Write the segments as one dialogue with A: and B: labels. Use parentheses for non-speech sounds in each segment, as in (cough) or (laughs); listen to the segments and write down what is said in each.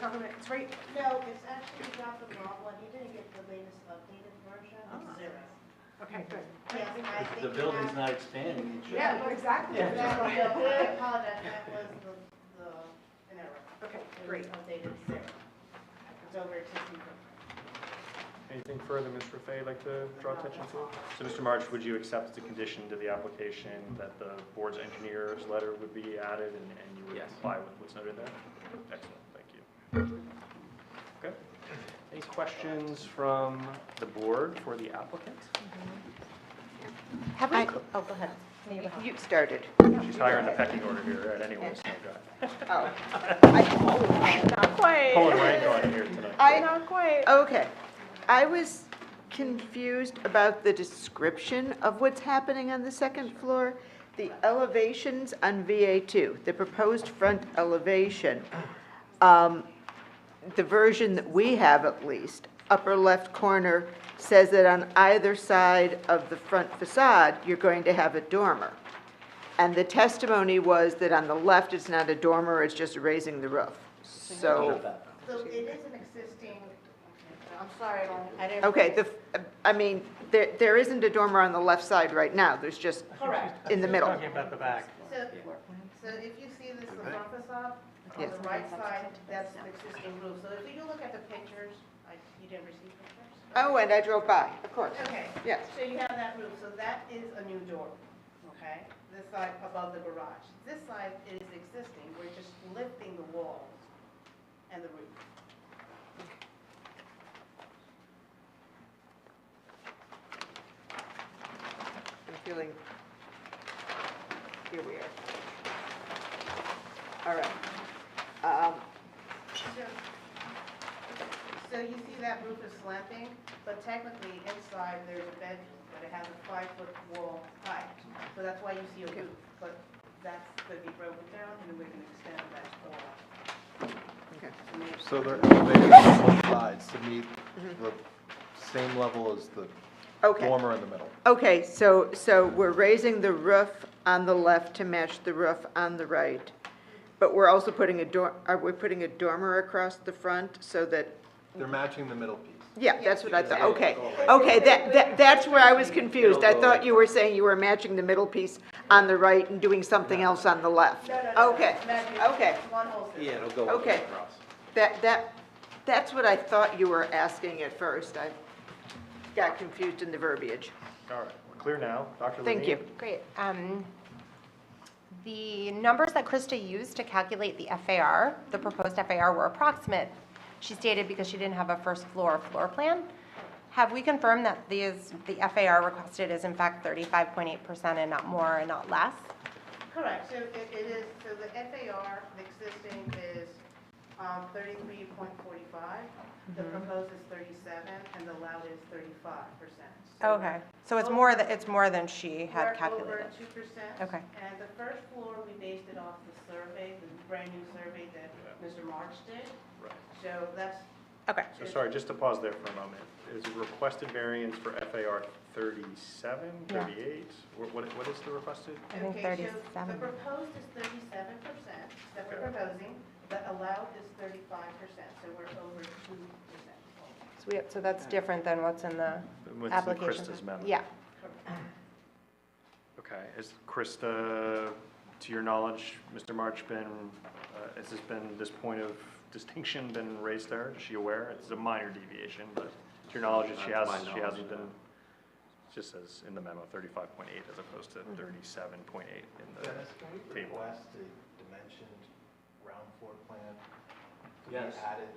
A: Talking about, it's right,
B: No, it's actually not the wrong one. You didn't get the latest updated version.
A: Ah.
B: It's zero.
A: okay, good.
B: Yes, I
C: If
B: think.
C: The
B: you
C: building's
B: have-
C: not expanding, it should.
A: Yeah, no, exactly.
C: Yeah.
B: No, no, I apologize. That was the, the, an error.
A: Okay,
B: It was
A: great.
B: updated zero. It's over to zero.
D: Anything further, Ms. Raffay, you'd like to draw attention to? So, Mr. March, would you accept the condition to the application that the board's engineer's letter would be added and and you would
E: Yes.
D: comply with what's noted there? Excellent, thank you. Okay. Any questions from the board for the applicant?
F: Have we,
G: I-
F: co-
G: Oh, go ahead.
F: you started.
D: She's higher in the pecking order here, right, anyway, so go
F: Oh. (laughs) I- Not
D: ahead. Pulling
F: quite.
D: rank on here tonight.
F: I, not quite. Okay. I was confused about the description of what's happening on the second floor. The elevations on VA2, the proposed front elevation, um, the version that we have at least, upper left corner, says that on either side of the front facade, you're going to have a dormer. And the testimony was that on the left, it's not a dormer, it's just raising the roof. So,
B: So it is an existing, I'm sorry, I don't- I didn't.
F: okay, the, f- I mean, there, there isn't a dormer on the left side right now, there's just
B: Correct.
F: in the middle.
E: about the back.
B: So, so if you see this, the front facade, on the right side, that's the existing roof. So if you look at the pictures, I, you didn't receive pictures?
F: Oh, and I drove by, of course,
B: Okay.
F: yes.
B: So you have that roof, so that is a new door, okay? This side above the garage. This side is existing, we're just lifting the walls and the roof.
F: I'm feeling, here we are. All right. Um,
B: So so you see that roof is slanting, but technically inside there's a bedroom, but it has a five-foot wall height. So that's why you see a roof, but that's going to be broken down and we're going to extend that wall.
F: Okay.
B: To make-
C: So they're elevated on both sides to meet the same level as the
F: Okay.
C: dormer in the middle.
F: Okay, so, so we're raising the roof on the left to match the roof on the right, but we're also putting a door, are we putting a dormer across the front so that,
C: They're matching the middle piece.
F: yeah, that's what I thought,
C: Yeah.
F: okay. Okay, that, that, that's where I was confused. I thought you were saying you were matching the middle piece on the right and doing something else on the left.
B: No, no, no, no,
F: Okay,
B: imagine
F: okay.
B: One whole system.
E: Yeah, it'll go all the way
F: Okay.
E: across.
F: That, that, that's what I thought you were asking at first. I got confused in the verbiage.
D: All right, we're clear now. Dr. Levine?
F: Thank you.
G: Great. Um, The numbers that Krista used to calculate the FAR, the proposed FAR, were approximate, she stated, because she didn't have a first floor floor plan. Have we confirmed that these, the FAR requested is in fact 35.8% and not more and not less?
B: Correct, so it it is, so the FAR, the existing is um, 33.45, the
G: Mm-hmm.
B: proposed is 37, and the allowed is 35%. So
G: Okay, so it's more, tha- it's more than she had
B: We're
G: calculated.
B: over 2%.
G: Okay.
B: And the first floor, we based it off the survey, the brand-new survey that Mr. March did.
D: Right.
B: So that's,
G: Okay,
D: So sorry, just to pause there for a moment, is requested variance for FAR 37,
G: Yeah.
D: 38? What, what- what is the requested?
G: I think
B: okay, so the
G: 37.
B: proposed is 37% that we're
D: Okay.
B: proposing, the allowed is 35%, so we're over 2%.
G: so we, so that's different than what's in the
D: What's in
G: application.
D: Krista's memo?
G: Yeah,
D: Okay, is Krista, to your knowledge, Mr. March been, uh, has this been, this point of distinction been raised there? Is she aware? It's a minor deviation, but to your knowledge, she
E: Not Uh, to
D: has,
E: my
D: she
E: knowledge,
D: hasn't been,
E: no.
D: it just says in the memo 35.8 as opposed
E: Mm-hmm.
D: to 37.8 in the
H: Dennis, can we
D: table.
H: request a dimensioned round floor plan to be
C: Yes.
H: added?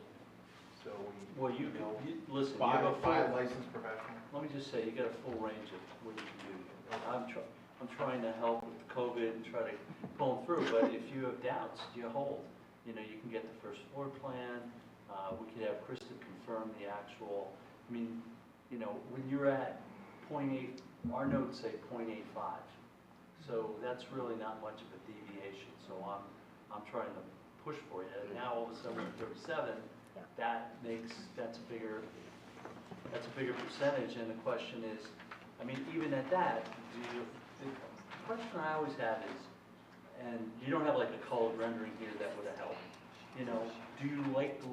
H: So we.
E: Well, you can,
H: know
E: you, listen, you
H: By
E: have
H: a
E: a
H: fire
E: full,
H: licensed professional?
E: let me just say, you got a full range of what you can do. And I'm try, I'm trying to help with COVID and try to pull them through, but if you have doubts, you hold. You know, you can get the first floor plan, uh, we could have Krista confirm the actual, I mean, you know, when you're at point eight, our notes say point eight five. So that's really not much of a deviation, so I'm, I'm trying to push for you. And now all of a sudden, we're thirty-seven, that makes, that's a bigger, that's a bigger percentage, and the question is, I mean, even at that, do you, the question I always have is, and you don't have like a colored rendering here that would have helped, you know, do you like the